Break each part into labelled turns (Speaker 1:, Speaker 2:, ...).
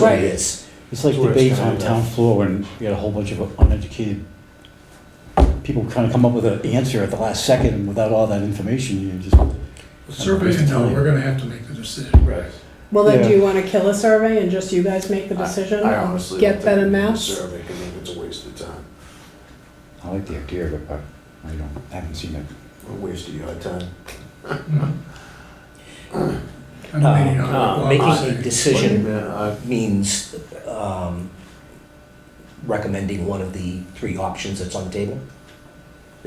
Speaker 1: what it
Speaker 2: Right.
Speaker 1: is.
Speaker 3: It's like
Speaker 2: Tourist
Speaker 3: debates
Speaker 2: kind
Speaker 3: on
Speaker 2: of.
Speaker 3: town floor when you got a whole bunch of uneducated people kind of come up with an answer at the last second and without all that information, you just,
Speaker 4: The survey can tell, we're gonna have to make the decision.
Speaker 2: Right.
Speaker 5: Well, then, do
Speaker 3: Yeah.
Speaker 5: you want to kill a survey and just you guys make the decision?
Speaker 2: I honestly don't
Speaker 5: Get
Speaker 2: think
Speaker 5: better
Speaker 2: we need a
Speaker 5: maps?
Speaker 2: Survey, 'cause I think it's a waste of time,
Speaker 3: I like the idea of it, but I don't, I haven't seen it.
Speaker 2: a waste of your time.
Speaker 1: Uh,
Speaker 4: I'm
Speaker 1: Uh,
Speaker 4: waiting on what Bob was
Speaker 1: Making a
Speaker 4: saying.
Speaker 1: decision
Speaker 2: Yeah,
Speaker 1: means um, recommending one of the three options that's on the table.
Speaker 2: I-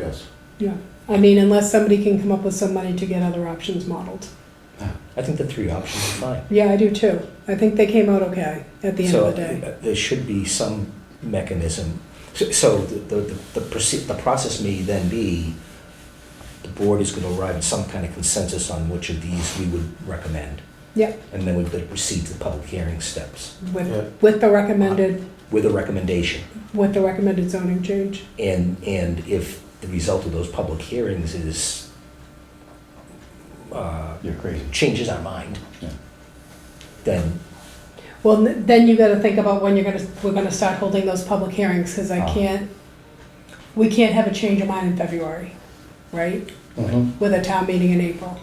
Speaker 2: Yes.
Speaker 5: Yeah. I mean, unless somebody can come up with some money to get other options modeled.
Speaker 1: I think the three options are fine.
Speaker 5: Yeah, I do too. I think they came out okay at the end
Speaker 1: So
Speaker 5: of the day.
Speaker 1: uh, there should be some mechanism. So- So the, the, the proce- the process may then be, the board is gonna arrive at some kind of consensus on which of these we would recommend.
Speaker 5: Yep.
Speaker 1: And then we're gonna proceed to the public hearing steps
Speaker 2: Yeah.
Speaker 5: With, with the recommended,
Speaker 1: with a recommendation.
Speaker 5: with the recommended zoning change.
Speaker 1: And, and if the result of those public hearings is, uh,
Speaker 3: You're crazy.
Speaker 1: changes our mind,
Speaker 3: Yeah.
Speaker 1: then,
Speaker 5: Well, n- then you gotta think about when you're gonna, we're gonna start holding those public hearings, because I
Speaker 3: Ah.
Speaker 5: can't, we can't have a change of mind in February, right?
Speaker 3: Mhm.
Speaker 5: With a town meeting in April.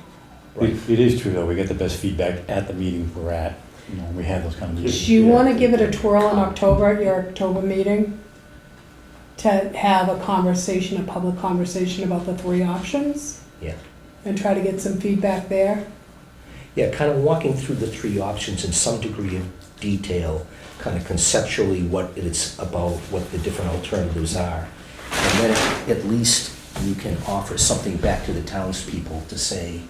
Speaker 3: It it is true, though, we get the best feedback at the meeting we're at, you know, when we have those kind of meetings.
Speaker 5: Do you wanna give it a twirl in October at your October meeting? To have a conversation, a public conversation about the three options?
Speaker 1: Yeah.
Speaker 5: And try to get some feedback there?
Speaker 1: yeah, kind of walking through the three options in some degree of detail, kind of conceptually what it's about, what the different alternatives are. And then at least you can offer something back to the townspeople to say,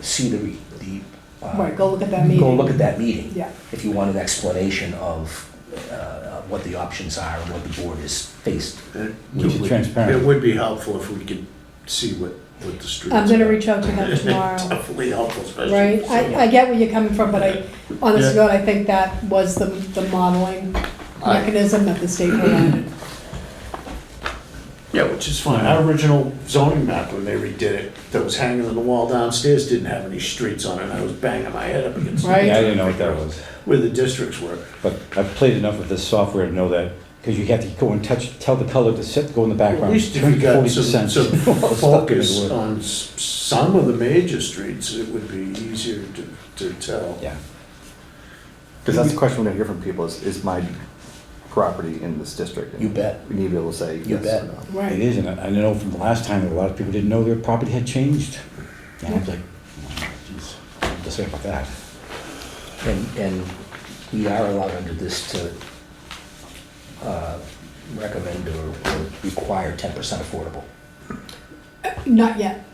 Speaker 1: see the, re- the. uh,
Speaker 5: Right, go look at that meeting.
Speaker 1: Go look at that meeting.
Speaker 5: Yeah,
Speaker 1: if you want an explanation of uh, what the options are and what the board is faced.
Speaker 2: It
Speaker 3: We should
Speaker 2: would-
Speaker 3: transparent.
Speaker 2: It would be helpful if we could see what, what the streets.
Speaker 5: I'm gonna
Speaker 2: are.
Speaker 5: reach out to them tomorrow.
Speaker 2: Definitely helpful, especially.
Speaker 5: Right, I, I get where you're coming from, but I, honest to
Speaker 2: Yeah.
Speaker 5: God, I think that was the, the modeling
Speaker 2: I-
Speaker 5: mechanism that the state provided.
Speaker 2: Yeah, which is fine. Our original zoning map, when they redid it, that was hanging on the wall downstairs, didn't have any streets on it, and I was banging my head up against. it.
Speaker 5: Right.
Speaker 3: Yeah, I didn't know what that was.
Speaker 2: Where the districts were.
Speaker 3: But I've played enough with this software to know that, because you have to go and touch, tell the color to sit, go in the
Speaker 2: At
Speaker 3: background.
Speaker 2: least if you got some,
Speaker 3: 40%.
Speaker 2: some
Speaker 3: Well, stuck in
Speaker 2: focus
Speaker 3: the wood.
Speaker 2: on s- some of the major streets, it would be easier to, to tell.
Speaker 3: Yeah.
Speaker 6: Because that's the question we're gonna hear from people is, is my property in this district?
Speaker 1: You bet.
Speaker 6: We need to be able to say
Speaker 1: You
Speaker 6: yes
Speaker 1: bet.
Speaker 6: or no.
Speaker 3: It
Speaker 5: Right,
Speaker 3: is, and I I know from the last time, that a lot of people didn't know their property had changed. And I was like, geez, what to say about that?
Speaker 1: And, and we are allowed under this to uh, recommend or or require 10% affordable.
Speaker 5: not yet.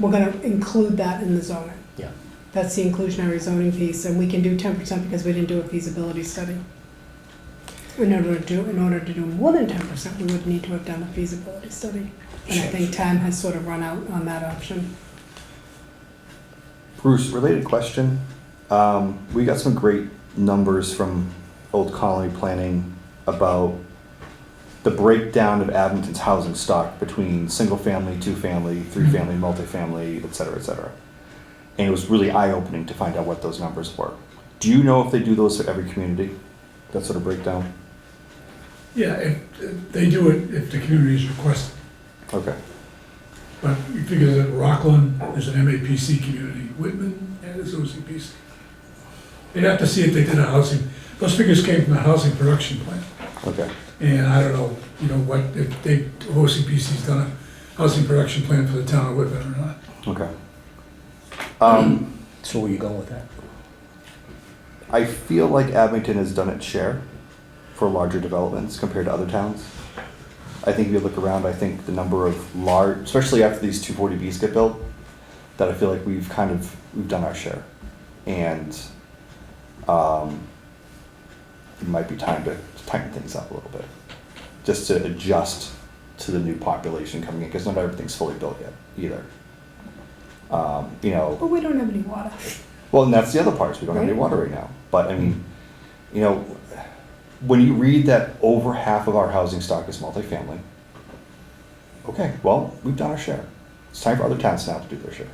Speaker 5: We're gonna include that in the zoning.
Speaker 1: Yeah.
Speaker 5: That's the inclusionary zoning piece, and we can do ten percent because we didn't do a feasibility study. In order to do, in order to do more than ten percent, we would need to have done a feasibility study. And
Speaker 1: Sure.
Speaker 5: I think time has sort of run out on that option.
Speaker 6: Bruce, related question. Um, we got some great numbers from Old Colony Planning about the breakdown of Abington's housing stock between single family, two family, three
Speaker 1: Mm-hmm.
Speaker 6: family, multifamily, et cetera, et cetera. And it was really eye opening to find out what those numbers were. Do you know if they do those for every community? That sort of breakdown?
Speaker 4: Yeah, if, if they do it, if the communities request, it.
Speaker 6: Okay.
Speaker 4: but we figure that Rockland is an MAPC community, Whitman is OCPC. They'd have to see if they did a housing, those figures came from the housing production plan.
Speaker 6: Okay.
Speaker 4: And I don't know, you know, what, if they, OCPC's done a housing production plan for the town of Whitman or not.
Speaker 6: Okay. Um,
Speaker 1: So where are you going with that?
Speaker 6: I feel like Abington has done its share for larger developments compared to other towns. I think if you look around, I think the number of large, especially after these two forty Bs get built, that I feel like we've kind of, we've done our share. And, um, it might be time to tighten things up a little bit, just to adjust to the new population coming in, because not everything's fully built yet either. Um, you know.
Speaker 5: But we don't have any water.
Speaker 6: Well, and that's the other part, is we don't have any
Speaker 5: Right.
Speaker 6: water right now. But I mean, you know, when you read that over half of our housing stock is multifamily, okay, well, we've done our share. It's time for other towns now to do their share.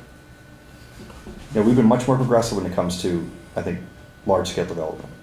Speaker 6: You know, we've been much more progressive when it comes to, I think, large-scale development.